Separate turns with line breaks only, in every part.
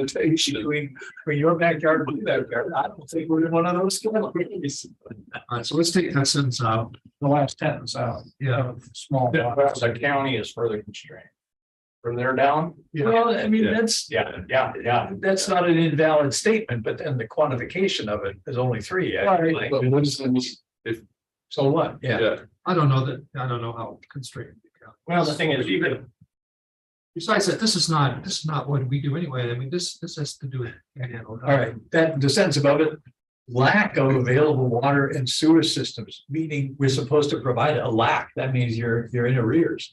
limitation between, between your backyard and their backyard. I don't think we're in one of those categories.
Uh, so let's take that sentence out.
The last sentence out,
Yeah,
small.
Perhaps the county is further constrained. From there down?
Well, I mean, that's,
Yeah, yeah, yeah.
that's not an invalid statement, but then the quantification of it is only three. actually.
Right.
But what does that mean?
So what? Yeah.
I don't know that, I don't know how constrained. it can.
Well, the thing is, even,
Besides that, this is not, this is not what we do anyway. I mean, this, this has to do with. All
All right, that, the sentence above it, lack of available water and sewer systems, meaning we're supposed to provide a lack. That means you're, you're in arrears.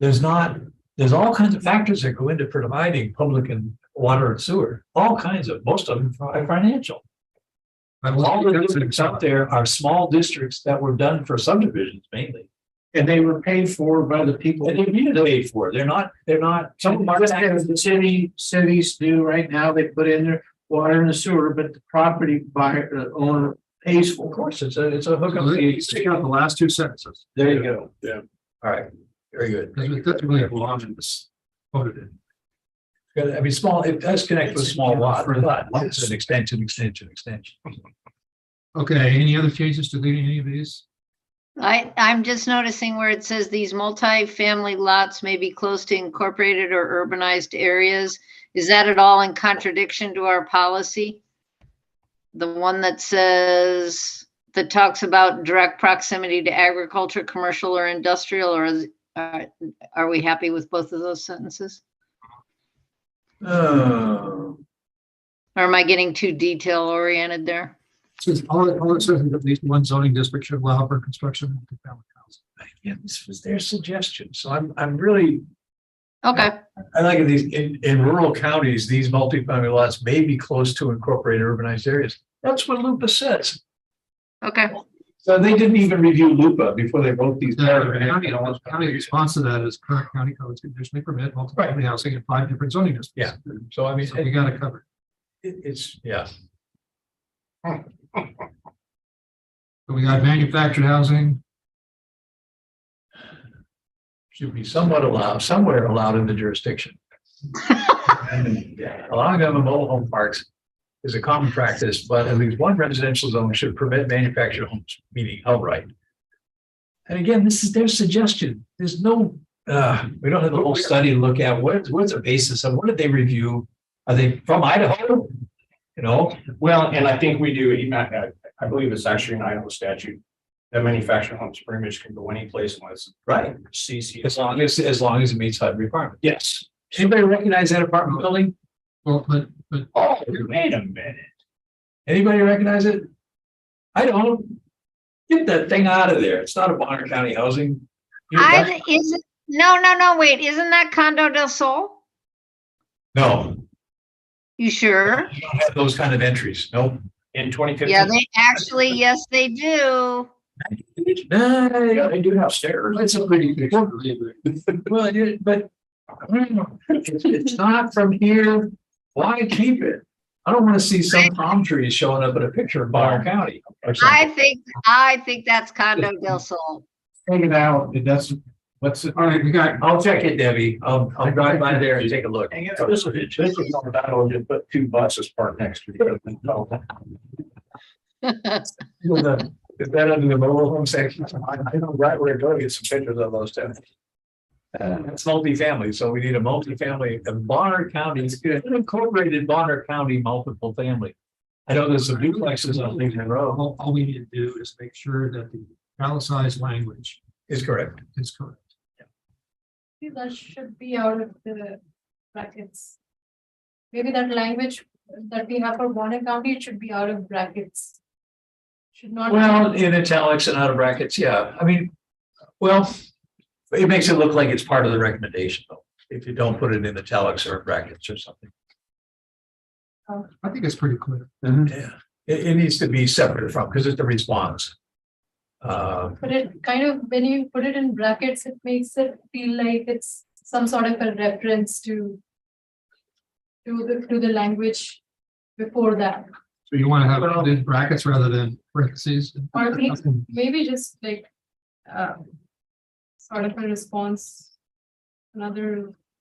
There's not, there's all kinds of factors that go into providing public and water and sewer, all kinds of, most of them are financial. All the districts out there are small districts that were done for subdivisions mainly.
and they were paid for by the people.
And they needed to pay for it. They're not, they're not, some of them
Just
are.
as the city, cities do right now, they put in their water and the sewer, but the property buyer, the owner pays
Of
for.
course, it's a, it's a hookup. fee.
Take out the last two sentences.
There you go.
Yeah.
All right, very good.
That's that's really a lot of this. Voted in.
Good. I mean, small, it does connect with small lot, but it's an extension, extension, extension.
Okay, any other changes to leaving any of these?
I, I'm just noticing where it says these multi-family lots may be close to incorporated or urbanized areas. Is that at all in contradiction to our policy? The one that says, that talks about direct proximity to agriculture, commercial or industrial, or is, uh, are we happy with both of those sentences?
Um,
Or am I getting too detail oriented there?
Since all, it- all it says is at least one zoning district should allow for construction. of multifamily housing.
Yeah, this was their suggestion, so I'm, I'm really,
Okay,
I like in these, in, in rural counties, these multifamily lots may be close to incorporated urbanized areas. That's what Lupa says.
okay.
So they didn't even review Lupa before they wrote these.
The
paragraphs.
county- the County response to that is current county codes conditionally permit multifamily housing in five different zoning districts. Yeah.
So I mean,
So
it,
we got it covered.
it- it's, yeah,
So we got manufactured housing.
should be somewhat allowed, somewhere allowed in the jurisdiction. And Allowing them in mobile home parks is a common practice, but at least one residential zone should permit manufactured homes, meaning outright. And again, this is their suggestion. There's no, uh, we don't have the whole study to look at. What, what's the basis of, what did they review? Are they from Idaho? You know,
Well, and I think we do, even at- at- I believe it's actually an Idaho statute. That manufactured homes pretty much can go any place unless
right,
CC.
as long as, as long as it meets HUD requirements.
Yes.
Anybody recognize that apartment building?
Well, but, but
Oh, wait a minute.
Anybody recognize it? I don't. Get that thing out of there. It's not a Bonner County housing. You-
I, is, no, no, no, wait, isn't that Condo del Sol?
No,
You sure?
you don't have those kind of entries. No.
In twenty fifteen.
Yeah, they actually, yes, they do.
Yeah,
Nah,
they do have stairs.
it's a pretty big.
well, it- but. I don't know. It's it's not from here. Why keep it? I don't want to see some palm trees showing up in a picture of Bonner County. or something.
I think, I think that's Condo del Sol.
Hang it out, it doesn't, what's it?
All right, we got,
I'll check it, Debbie. I'll, I'll drive by there and take a look.
Hang it out. This is, this is on that, I'll just put two buses parked next to each other. No.
Well, the- Is that under the mobile home section? I I know right where to go to get some pictures of those two. Uh, It's multifamily, so we need a multifamily, and Bonner County, it's good, incorporated Bonner County multiple family. I know there's some duplexes on Lincoln Road.
all, all we need to do is make sure that the italicized language
Is correct.
is correct.
Maybe That should be out of the brackets. Maybe that language that we have for Bonner County, it should be out of brackets. Should not. be-
Well, in italics and out of brackets, yeah, I mean, well, it makes it look like it's part of the recommendation though, if you don't put it in italics or brackets or something.
I think it's pretty clear.
Yeah, it, it needs to be separate from, because it's the response. Uh,
But it kind of, when you put it in brackets, it makes it feel like it's some sort of a reference to. To the, to the language before that,
So you want to have it in brackets rather than parentheses?
Or at least- maybe just like. uh, Sort of a response. Another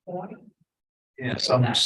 point.
yeah, some,